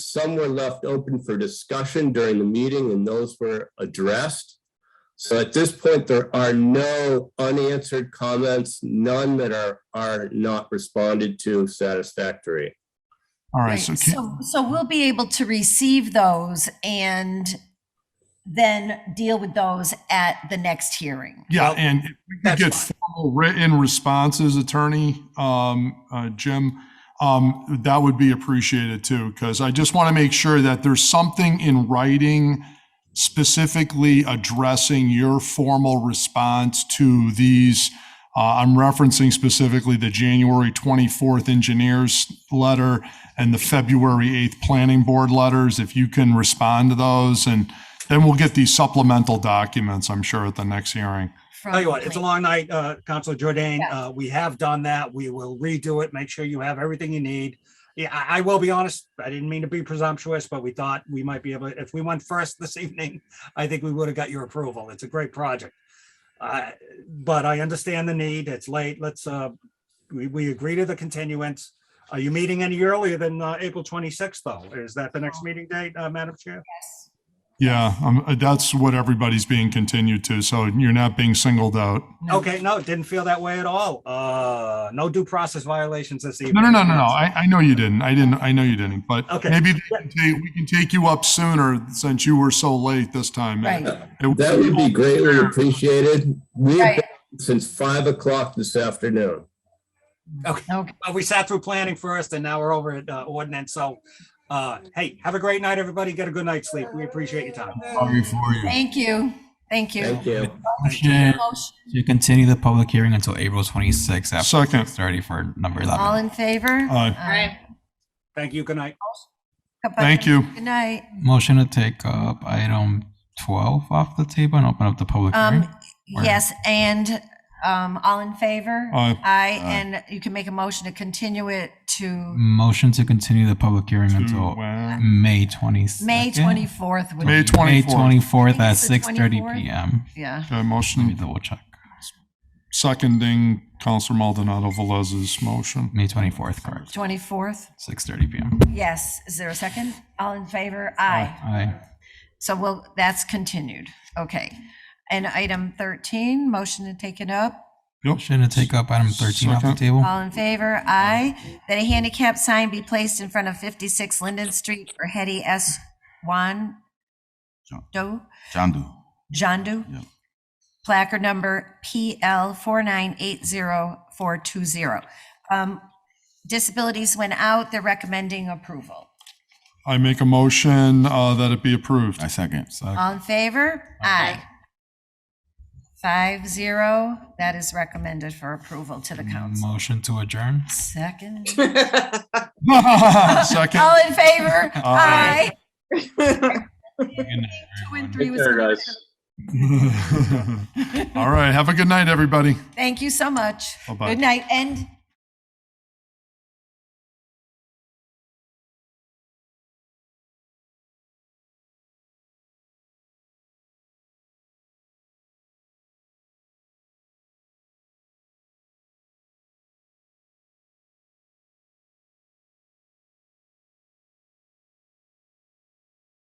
Some were left open for discussion during the meeting and those were addressed. So at this point, there are no unanswered comments, none that are, are not responded to satisfactory. All right, Right, so can, so, so we'll be able to receive those and then deal with those at the next hearing. yeah, and if we could get That's formal written responses, attorney, um, uh, Jim, um, that would be appreciated too, because I just want to make sure that there's something in writing specifically addressing your formal response to these. Uh, I'm referencing specifically the January 24th engineers letter and the February 8th planning board letters. If you can respond to those and then we'll get these supplemental documents, I'm sure, at the next hearing. from Tell you what, it's a plan- long night, uh, Counselor Jordan. Yeah. Uh, we have done that. We will redo it. Make sure you have everything you need. Yeah, I, I will be honest. I didn't mean to be presumptuous, but we thought we might be able, if we went first this evening, I think we would have got your approval. It's a great project. Uh, but I understand the need. It's late. Let's, uh, we, we agree to the continuance. Are you meeting any earlier than, uh, April twenty-sixth though? Is that the next meeting date, uh, Madam Chair? Yes. Yeah, um, uh, that's what everybody's being continued to, so you're not being singled out. Okay, no, didn't feel that way at all. Uh, no due process violations this evening. No, no, no, no, no, I, I know you didn't, I didn't, I know you didn't, but Okay. maybe they can take- we can take you up sooner since you were so late this time. Right. It- That would be greatly appreciated. We've Right. been since five o'clock this afternoon. Okay. Uh, we sat through planning first and now we're over at uh, ordinance. So, uh, hey, have a great night, everybody. Get a good night's sleep. We appreciate your time. Sorry for you. Thank you. Thank you. Thank you. Motion Motion- to continue the public hearing until April 26th at Second. uh, 6:30 for number 11. All in favor? Uh, Aye. Thank you. Good night. Thank you. Good night. Motion to take up item 12 off the table and open up the public hearing. Um, yes, and, um, all in favor? Aye. Aye, and you can make a motion to continue it Mm. to Motion to continue the public hearing To, until uh, May 22nd. May 24th. would May be- 24th. May 24th at It's the 6:30 24th? PM. Yeah. Okay, Let me motion double check. seconding Counselor Maldonado Velez's motion. May 24th, correct. 24th? 6:30 PM. Yes. Is there a second? All in favor? Aye. Aye. So we'll that's continued. Okay. And item 13, motion to take it up. Yep, Motion to take up item 13 off the Second. table. All in favor? Aye. That a handicap sign be placed in front of 56 Linden Street for Hetty S. Juan Doe, Chandu. Jandu. Placard number PL 4980420. Um, Disabilities went out. They're recommending approval. I make a motion, uh, that it be approved. I second. All in favor? Aye. Five zero, that is recommended for approval to the council. Motion to adjourn. Second. Second. All in favor? Aye. Aye. Good night, Two and everyone. three was. All right, have a good night, everybody. Thank you so much. Bye-bye. Good night, and